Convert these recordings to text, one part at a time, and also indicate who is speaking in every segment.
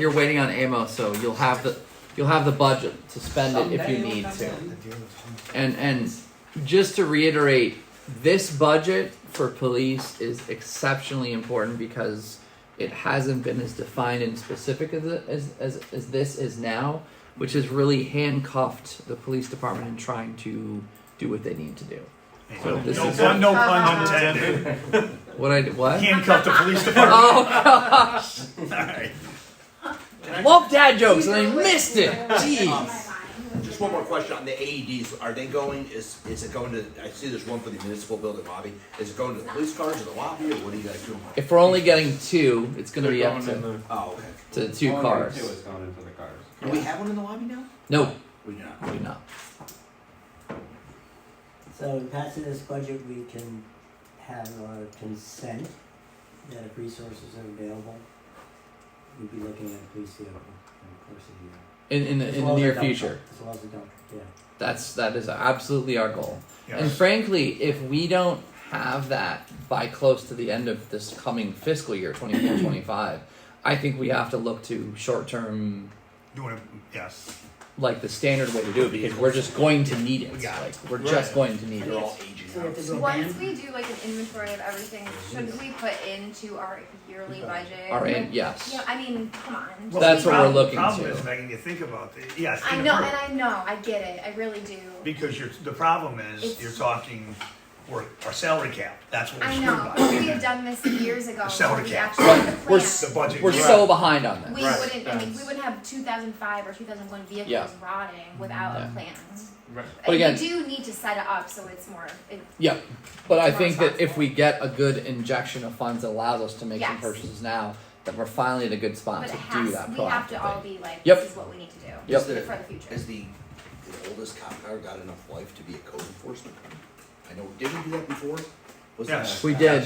Speaker 1: You're waiting on ammo, so you'll have the you'll have the budget to spend it if you need to. And and just to reiterate, this budget for police is exceptionally important because it hasn't been as defined and specific as it- as as, as this is now, which has really handcuffed the police department in trying to do what they need to do. So this
Speaker 2: No
Speaker 1: is
Speaker 2: pun, no
Speaker 3: Uh-huh.
Speaker 2: pun intended.
Speaker 1: what I did. What?
Speaker 2: Handcuffed the police department.
Speaker 1: Oh gosh!
Speaker 2: Alright.
Speaker 1: Love dad jokes and I missed it. Jeez.
Speaker 4: Just one more question on the AEDs, are they going, is, is it going to, I see there's one for the municipal building lobby, is it going to the police cars or the lobby, or what are you guys doing?
Speaker 1: If we're only getting two, it's gonna be up
Speaker 5: Going in
Speaker 1: to,
Speaker 5: the-
Speaker 4: Oh, okay.
Speaker 1: to two
Speaker 5: only
Speaker 1: cars.
Speaker 5: Two is going into the cars.
Speaker 4: Do we have one in the lobby now?
Speaker 1: No,
Speaker 4: We do not.
Speaker 1: we not.
Speaker 6: So in passing this budget, we can have our consent that if resources are available, we'd be looking at a police vehicle in the course of the year.
Speaker 1: In in the,
Speaker 6: As
Speaker 1: in the
Speaker 6: well as a
Speaker 1: near
Speaker 6: dump
Speaker 1: future.
Speaker 6: truck, As well as a dump, truck, yeah.
Speaker 1: That's that is absolutely our goal. And
Speaker 2: Yes.
Speaker 1: frankly, if we don't have that by close to the end of this coming fiscal year 24-25, I think we have to look to short term
Speaker 2: Doing it, yes.
Speaker 1: like the standard way to do it because we're just going to need it.
Speaker 4: We got
Speaker 1: Like we're
Speaker 2: Right.
Speaker 1: just going to need
Speaker 4: They're
Speaker 1: it.
Speaker 4: all aging
Speaker 6: So we have
Speaker 4: out.
Speaker 6: to go
Speaker 3: Once
Speaker 6: down,
Speaker 3: we do like an inventory of everything, shouldn't we put into our yearly budget?
Speaker 1: All right, yes.
Speaker 3: You know, I mean, come on.
Speaker 1: Well, That's what
Speaker 3: We-
Speaker 1: we're
Speaker 2: Problem-
Speaker 1: looking
Speaker 2: Problem
Speaker 1: to.
Speaker 2: is, Megan, you think about it, yes.
Speaker 3: I
Speaker 2: in
Speaker 3: know,
Speaker 2: a-
Speaker 3: and I know, I get it, I really do.
Speaker 2: Because you're, the problem is,
Speaker 3: It's-
Speaker 2: you're talking, we're, our salary cap, that's what we're
Speaker 3: I
Speaker 2: screwed
Speaker 3: know,
Speaker 2: by.
Speaker 3: if we had done this years ago,
Speaker 2: Salary
Speaker 3: when we
Speaker 2: cap.
Speaker 3: actually had the
Speaker 1: We're
Speaker 3: plan,
Speaker 2: The budget.
Speaker 1: We're so behind on this.
Speaker 3: we
Speaker 5: Right.
Speaker 3: wouldn't, I mean, we
Speaker 5: That's-
Speaker 3: wouldn't have two thousand five or two thousand one
Speaker 1: Yeah.
Speaker 3: vehicles rotting without a
Speaker 1: Yeah.
Speaker 3: plan.
Speaker 5: Right.
Speaker 1: But again-
Speaker 3: We do need to set it up so it's more, it,
Speaker 1: Yeah, but I
Speaker 3: More
Speaker 1: think that if
Speaker 3: responsible.
Speaker 1: we get a good injection of funds that allows us to make some
Speaker 3: Yes.
Speaker 1: purchases now, that we're finally in a good spot
Speaker 3: but it
Speaker 1: uh, to do
Speaker 3: has,
Speaker 1: that
Speaker 3: we have to all
Speaker 1: proactively.
Speaker 3: be like,
Speaker 1: Yep.
Speaker 3: this is what we need to do
Speaker 1: Yep.
Speaker 3: for the future.
Speaker 4: Has the, the oldest cop car got enough life to be a code enforcement car? I know, did we do that before? Was that-
Speaker 2: Yes.
Speaker 1: We did.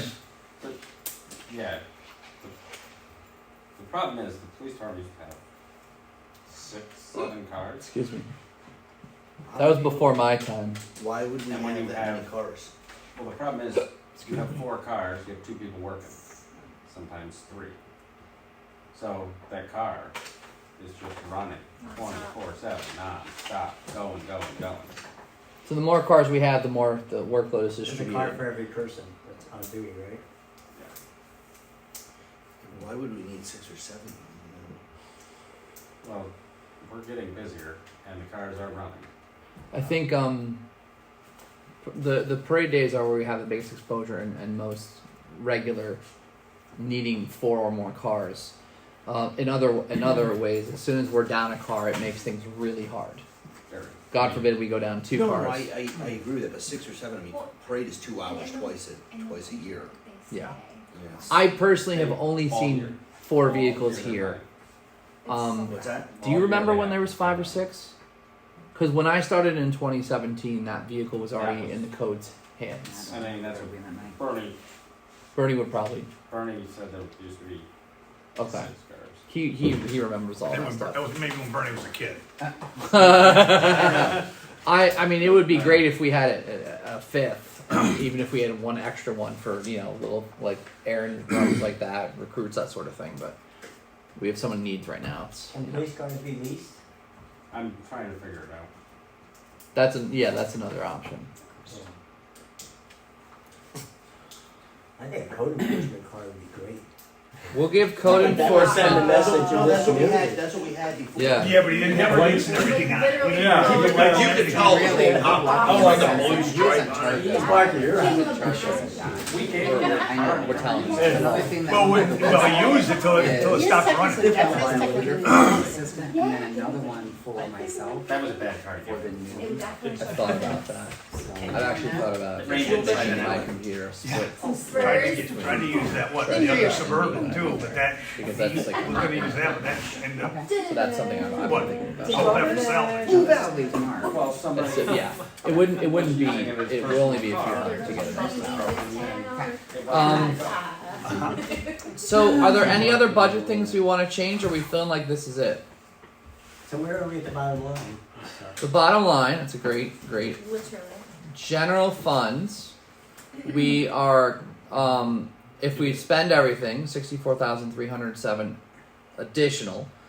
Speaker 5: Yeah. The, the problem is the police department used to have six, seven cars.
Speaker 1: Excuse me. That was before my time.
Speaker 4: Why would we
Speaker 5: And when
Speaker 4: have
Speaker 5: you
Speaker 4: that many
Speaker 5: have-
Speaker 4: cars?
Speaker 5: Well, the problem is you have four cars, you have two people working, sometimes three. So that car is just running
Speaker 3: Nonstop.
Speaker 5: 24 7, non stop, going, going, going.
Speaker 1: So the more cars we have, the more the workload is
Speaker 6: there's a car
Speaker 1: distributed.
Speaker 6: for every person that's on duty, right?
Speaker 4: Why would we need six or seven? you know?
Speaker 5: Well, we're getting busier and the cars are running.
Speaker 1: I think um, the the parade days are where we have the biggest exposure and, and most regular needing four or more cars. Uh, in other in other ways, as soon as we're down a car, it makes things really hard.
Speaker 5: Very-
Speaker 1: God forbid we go down two
Speaker 4: no,
Speaker 1: cars.
Speaker 4: No, I, I, I agree with that, but six or seven, I mean,
Speaker 3: Well,
Speaker 4: parade is two hours
Speaker 3: and-
Speaker 4: twice
Speaker 3: and-
Speaker 4: a, twice a year.
Speaker 3: They
Speaker 1: Yeah.
Speaker 3: say.
Speaker 4: Yes.
Speaker 1: I personally have
Speaker 5: All
Speaker 1: only
Speaker 5: year.
Speaker 1: seen four
Speaker 5: All
Speaker 1: vehicles
Speaker 5: year they're
Speaker 1: here.
Speaker 5: running.
Speaker 3: It's
Speaker 1: Um,
Speaker 3: so
Speaker 4: What's that?
Speaker 1: Do you
Speaker 5: All
Speaker 1: remember
Speaker 5: year
Speaker 1: when
Speaker 5: they
Speaker 1: there
Speaker 5: have
Speaker 1: was five or
Speaker 5: to-
Speaker 1: six? Because when I started in 2017, that vehicle was
Speaker 5: That
Speaker 1: already
Speaker 5: was-
Speaker 1: in the code's hands.
Speaker 5: I mean, that's what Bernie,
Speaker 1: Bernie would probably
Speaker 5: Bernie said there used to be six
Speaker 1: okay.
Speaker 5: cars.
Speaker 1: He he he remembers all
Speaker 2: That
Speaker 1: that
Speaker 2: was, that
Speaker 1: stuff.
Speaker 2: was maybe when Bernie was a kid.
Speaker 1: I I mean, it would be great if we had a, a, a fifth, um, even if we had one extra one for you know little like Aaron runs like that, recruits that sort of thing. But we have someone needs right now. It's,
Speaker 6: Can police cars be leased?
Speaker 5: I'm trying to figure it out.
Speaker 1: that's an yeah, that's another option.
Speaker 6: I think a code enforcement car would be great.
Speaker 1: We'll give code
Speaker 6: That would send a
Speaker 1: enforcement.
Speaker 6: message
Speaker 4: No,
Speaker 6: to this
Speaker 4: that's what we
Speaker 6: community.
Speaker 4: had, that's what we had before.
Speaker 1: Yeah.
Speaker 2: Yeah, but he didn't have lights and everything on. it.
Speaker 3: Literally
Speaker 5: Yeah.
Speaker 3: go
Speaker 5: You
Speaker 3: to
Speaker 5: can
Speaker 3: the-
Speaker 5: like-
Speaker 4: You could tell
Speaker 6: Really?
Speaker 4: really how, how like a blue stripe on it.
Speaker 6: It's Mark, you're on.
Speaker 3: Can't even process that.
Speaker 5: We gave
Speaker 7: We're-
Speaker 5: him a
Speaker 7: I know,
Speaker 5: car.
Speaker 1: We're telling you.
Speaker 7: Another thing that.
Speaker 2: Well, we, well, use it till, it- till it stops running.
Speaker 7: Assistant, and then another one for myself,
Speaker 5: That was a bad car.
Speaker 7: for the
Speaker 3: It
Speaker 7: new,
Speaker 3: would definitely
Speaker 1: I've
Speaker 3: show
Speaker 1: thought
Speaker 3: up.
Speaker 1: about that.
Speaker 7: so.
Speaker 1: I've actually thought about it.
Speaker 5: Ranger
Speaker 1: Changing
Speaker 5: Ranger.
Speaker 1: my computer split
Speaker 2: Tried to,
Speaker 3: Spurs.
Speaker 2: get- tried to use that, what, the other suburban too, but that,
Speaker 1: because that's like
Speaker 2: we're gonna use that, but uh, that ended up,
Speaker 1: so that's something I'm, I'm
Speaker 2: What?
Speaker 1: thinking about.
Speaker 2: oh, that was salvage.
Speaker 7: Who that leave tomorrow?
Speaker 5: Well, somebody.
Speaker 1: That's it, yeah, it wouldn't. It wouldn't be.
Speaker 5: I think it was
Speaker 1: It would only be a few
Speaker 5: personal
Speaker 1: hundred to get it.
Speaker 3: Something town.
Speaker 5: It wasn't
Speaker 1: Um,
Speaker 3: Ah.
Speaker 1: So, are there any other budget things we want to change? Or are we feeling like this is it?
Speaker 6: So where are we at the bottom line?
Speaker 1: The bottom line. That's a great, great
Speaker 3: Literally.
Speaker 1: general funds. We are, um, if we spend everything, sixty-four thousand three hundred seven additional.